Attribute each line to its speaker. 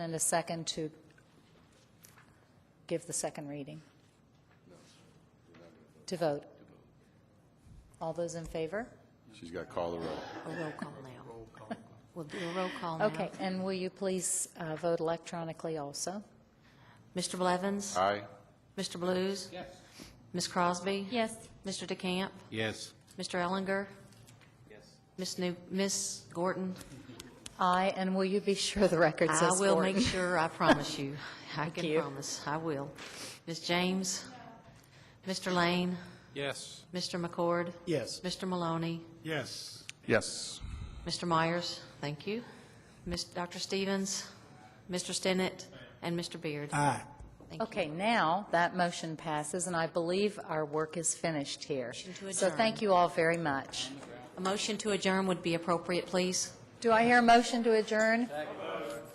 Speaker 1: And a second to give the second reading? To vote? All those in favor?
Speaker 2: She's got to call the roll.
Speaker 3: A roll call now. We'll do a roll call now.
Speaker 1: Okay, and will you please uh, vote electronically also?
Speaker 3: Mr. Blevins?
Speaker 2: Aye?
Speaker 3: Mr. Blues? Yes. Ms. Crosby? Yes. Mr. DeCamp?
Speaker 4: Yes.
Speaker 3: Mr. Ellinger? Yes. Ms. New, Ms. Gordon?
Speaker 1: Aye, and will you be sure the record says
Speaker 3: I will
Speaker 1: Gordon?
Speaker 3: make sure, I promise you. I can
Speaker 1: you.
Speaker 3: promise, I will. Ms. James? Mr. Lane?
Speaker 4: Yes.
Speaker 3: Mr. McCord?
Speaker 4: Yes.
Speaker 3: Mr. Maloney?
Speaker 4: Yes.
Speaker 2: Yes.
Speaker 3: Mr. Myers? Thank you. Ms., Dr. Stevens? Mr. Stinnett? And Mr. Beard?
Speaker 4: Aye.
Speaker 3: Thank you.
Speaker 1: Okay, now that motion passes, and I believe our work is finished here.
Speaker 3: Motion to
Speaker 1: So thank you all very much.
Speaker 3: A motion to adjourn would be appropriate, please.
Speaker 1: Do I hear a motion to adjourn?